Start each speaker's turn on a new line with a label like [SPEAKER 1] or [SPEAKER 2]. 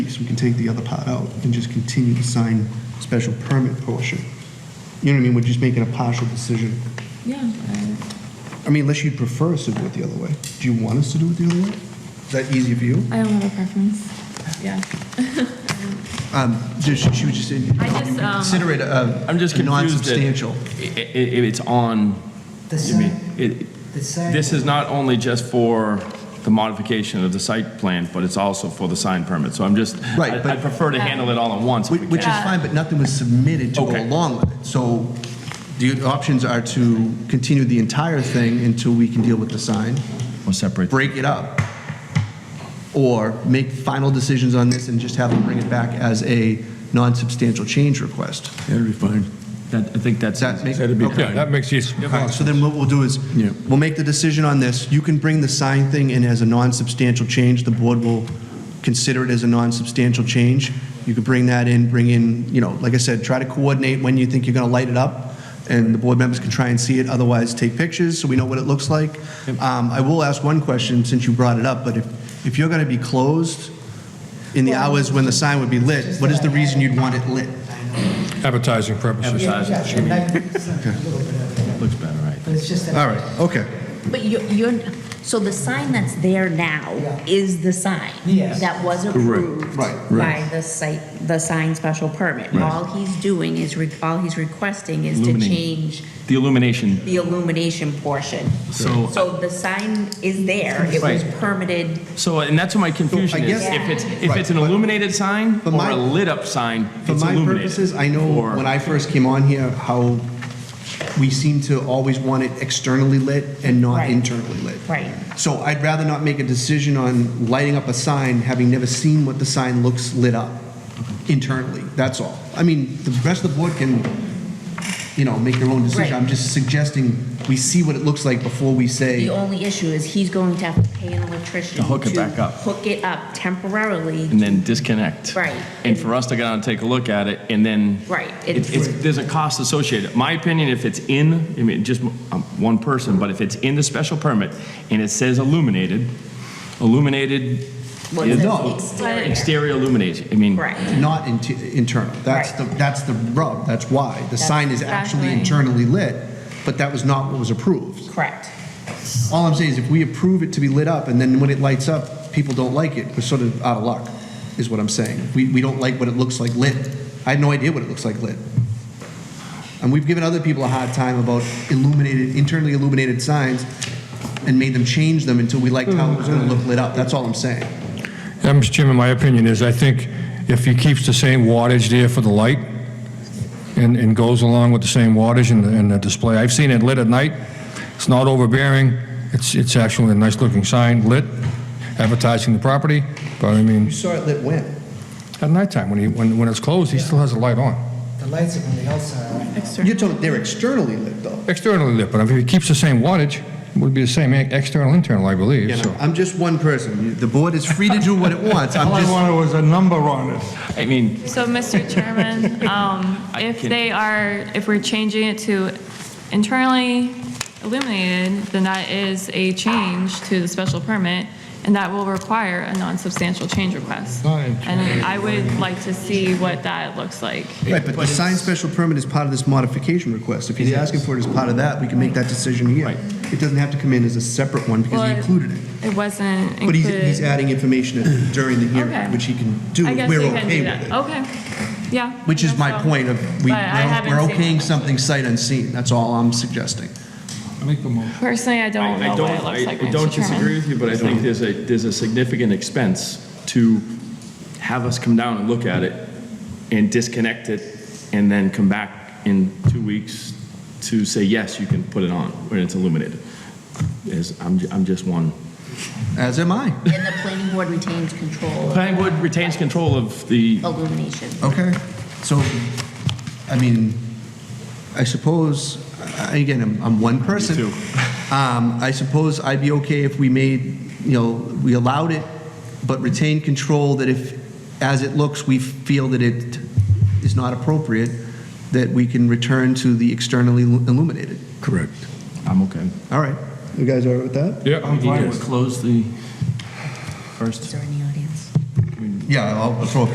[SPEAKER 1] you can take the other part out and just continue to sign special permit portion. You know what I mean? We're just making a partial decision.
[SPEAKER 2] Yeah, I-
[SPEAKER 1] I mean, unless you'd prefer us to do it the other way. Do you want us to do it the other way? Is that easier for you?
[SPEAKER 2] I don't have a preference. Yeah.
[SPEAKER 1] Um, just, she was just saying, you
[SPEAKER 2] I just,
[SPEAKER 1] can
[SPEAKER 2] um,
[SPEAKER 1] consider it a
[SPEAKER 3] I'm just
[SPEAKER 1] a
[SPEAKER 3] confused. that
[SPEAKER 1] Non-substantial.
[SPEAKER 3] i- i- i- it's on,
[SPEAKER 4] The
[SPEAKER 3] I mean,
[SPEAKER 4] site,
[SPEAKER 3] it,
[SPEAKER 4] the site.
[SPEAKER 3] this is not only just for the modification of the site plan, but it's also for the sign permit. So I'm just,
[SPEAKER 1] Right,
[SPEAKER 3] I-
[SPEAKER 1] but-
[SPEAKER 3] I'd prefer to handle it all at once if
[SPEAKER 1] Which
[SPEAKER 3] we
[SPEAKER 1] which is
[SPEAKER 3] can.
[SPEAKER 1] fine, but nothing was submitted to go
[SPEAKER 3] Okay.
[SPEAKER 1] along with it. So the options are to continue the entire thing until we can deal with the sign,
[SPEAKER 3] We'll separate.
[SPEAKER 1] break it up, or make final decisions on this and just have them bring it back as a non-substantial change request.
[SPEAKER 5] That'd be fine.
[SPEAKER 3] That, I think
[SPEAKER 1] Does
[SPEAKER 3] that's.
[SPEAKER 1] that make?
[SPEAKER 5] That'd be
[SPEAKER 1] okay.
[SPEAKER 5] fine.
[SPEAKER 6] That makes you,
[SPEAKER 1] All right, so then what we'll do is,
[SPEAKER 5] Yeah.
[SPEAKER 1] we'll make the decision on this. You can bring the sign thing in as a non-substantial change. The board will consider it as a non-substantial change. You could bring that in, bring in, you know, like I said, try to coordinate when you think you're going to light it up, and the board members can try and see it. Otherwise, take pictures so we know what it looks like. Um, I will ask one question since you brought it up, but if, if you're going to be closed in the hours when the sign would be lit, what is the reason you'd want it lit?
[SPEAKER 6] advertising purposes.
[SPEAKER 4] Yeah, yeah,
[SPEAKER 3] Advertising,
[SPEAKER 4] yeah, it's a little bit of-
[SPEAKER 3] looks better, right?
[SPEAKER 4] But it's just that.
[SPEAKER 1] All right, okay.
[SPEAKER 7] But you're, you're, so the sign that's there now
[SPEAKER 4] Yeah.
[SPEAKER 7] is the sign?
[SPEAKER 4] Yes.
[SPEAKER 7] That was approved?
[SPEAKER 1] Right.
[SPEAKER 7] By the site, the sign special permit? All he's doing is, re- all he's requesting is to
[SPEAKER 3] Illuminate.
[SPEAKER 7] change
[SPEAKER 3] The illumination,
[SPEAKER 7] the illumination portion.
[SPEAKER 3] So-
[SPEAKER 7] So the sign is there, it was
[SPEAKER 3] Right.
[SPEAKER 7] permitted,
[SPEAKER 3] so, and that's what my confusion is.
[SPEAKER 1] guess-
[SPEAKER 3] If it's, if
[SPEAKER 1] Right,
[SPEAKER 3] it's an
[SPEAKER 1] but-
[SPEAKER 3] illuminated sign
[SPEAKER 1] But
[SPEAKER 3] or
[SPEAKER 1] my-
[SPEAKER 3] a lit up sign,
[SPEAKER 1] For
[SPEAKER 3] it's
[SPEAKER 1] my
[SPEAKER 3] illuminated.
[SPEAKER 1] purposes, I know
[SPEAKER 3] Or-
[SPEAKER 1] when I first came on here, how we seem to always want it externally lit and not
[SPEAKER 7] Right.
[SPEAKER 1] internally lit.
[SPEAKER 7] right?
[SPEAKER 1] So I'd rather not make a decision on lighting up a sign, having never seen what the sign looks lit up internally, that's all. I mean, the rest of the board can, you know, make their own decision.
[SPEAKER 7] Right.
[SPEAKER 1] I'm just suggesting we see what it looks like before we
[SPEAKER 7] The
[SPEAKER 1] say,
[SPEAKER 7] only issue is he's going to have to pay an electrician.
[SPEAKER 3] To hook it back up.
[SPEAKER 7] Hook it up temporarily.
[SPEAKER 3] and then disconnect.
[SPEAKER 7] Right.
[SPEAKER 3] And for us to go out and take a look at it, and then.
[SPEAKER 7] Right.
[SPEAKER 3] It's, it's, there's a cost associated. My opinion, if it's in, I mean, just um, one person, but if it's in the special permit and it says illuminated, illuminated.
[SPEAKER 7] Well, it
[SPEAKER 3] is-
[SPEAKER 7] says exterior.
[SPEAKER 3] Exterior illumination, I mean.
[SPEAKER 7] Right.
[SPEAKER 1] not inti- internal. That's the,
[SPEAKER 7] Right.
[SPEAKER 1] that's the rub, that's why. The sign is actually
[SPEAKER 2] exactly.
[SPEAKER 1] internally lit, but that was not what was approved.
[SPEAKER 7] Correct.
[SPEAKER 1] All I'm saying is if we approve it to be lit up and then when it lights up, people don't like it, we're sort of out of luck, is what I'm saying. We, we don't like what it looks like lit. I had no idea what it looks like lit. And we've given other people a hard time about illuminated, internally illuminated signs and made them change them until we liked how it was gonna look lit up. That's all I'm saying.
[SPEAKER 6] Yeah, Mr. Chairman, my opinion is, I think if he keeps the same wattage there for the light and, and goes along with the same wattage and, the- and the display, I've seen it lit at night, it's not overbearing, it's, it's actually a nice-looking sign, lit, advertising the property, but I mean,
[SPEAKER 1] You saw it lit when?
[SPEAKER 6] at nighttime, when he, when, when it's closed, he still has the light on.
[SPEAKER 4] The lights are on the outside.
[SPEAKER 1] You're talking, they're externally lit though.
[SPEAKER 6] Externally lit, but if he keeps the same wattage, it would be the same e- external, internal, I believe,
[SPEAKER 1] You know,
[SPEAKER 6] so.
[SPEAKER 1] I'm just one person. You- The board is free to do what it wants. I'm
[SPEAKER 8] All I
[SPEAKER 1] just,
[SPEAKER 8] wanted was a number on it.
[SPEAKER 3] I mean,
[SPEAKER 2] So, Mr. Chairman, um,
[SPEAKER 3] I
[SPEAKER 2] if
[SPEAKER 3] can-
[SPEAKER 2] they are, if we're changing it to internally illuminated, then that is a change to the special permit, and that will require a non-substantial change request.
[SPEAKER 6] Fine.
[SPEAKER 2] And I would like to see what that looks like.
[SPEAKER 1] right, but the signed special permit is part of this modification request. If he's asking for it as part of that, we can make that decision here.
[SPEAKER 3] Right.
[SPEAKER 1] It doesn't have to come in as a separate one because he
[SPEAKER 2] Well,
[SPEAKER 1] included it.
[SPEAKER 2] It wasn't
[SPEAKER 1] But he's, he's
[SPEAKER 2] included.
[SPEAKER 1] adding information during the
[SPEAKER 2] Okay.
[SPEAKER 1] hearing, which he can do.
[SPEAKER 2] I
[SPEAKER 1] if
[SPEAKER 2] guess
[SPEAKER 1] We're
[SPEAKER 2] you can
[SPEAKER 1] okay
[SPEAKER 2] do
[SPEAKER 1] with
[SPEAKER 2] that.
[SPEAKER 1] it.
[SPEAKER 2] Okay, yeah.
[SPEAKER 1] Which is
[SPEAKER 2] I
[SPEAKER 1] my
[SPEAKER 2] guess so.
[SPEAKER 1] point of, we,
[SPEAKER 2] But I haven't
[SPEAKER 1] we're
[SPEAKER 2] seen
[SPEAKER 1] okaying
[SPEAKER 2] it.
[SPEAKER 1] something sight unseen. That's all I'm suggesting.
[SPEAKER 8] Make the motion.
[SPEAKER 2] Personally, I don't
[SPEAKER 3] I I
[SPEAKER 2] know
[SPEAKER 3] don't,
[SPEAKER 2] what it looks
[SPEAKER 3] I
[SPEAKER 2] like,
[SPEAKER 3] I don't
[SPEAKER 2] Mr.
[SPEAKER 3] disagree
[SPEAKER 2] Chairman.
[SPEAKER 3] with you, but I think there's a, there's a significant expense to have us come down and look at it and disconnect it and then come back in two weeks to say, yes, you can put it on when it's illuminated. Is, I'm, ju- I'm just one.
[SPEAKER 1] As am I.
[SPEAKER 7] And the planning board retains control of
[SPEAKER 3] Planning board retains control of the,
[SPEAKER 7] illumination.
[SPEAKER 1] Okay. So, I mean, I suppose, I- again, I'm, I'm one person.
[SPEAKER 3] too.
[SPEAKER 1] Um, I suppose I'd be okay if we made, you know, we allowed it, but retained control that if, as it looks, we feel that it is not appropriate, that we can return to the externally illuminated.
[SPEAKER 5] Correct.
[SPEAKER 3] I'm okay.
[SPEAKER 1] All right. You guys all right with that?
[SPEAKER 6] Yeah,
[SPEAKER 8] I'm fine
[SPEAKER 3] Close the first.
[SPEAKER 7] Is there any audience?
[SPEAKER 1] Yeah, I'll throw a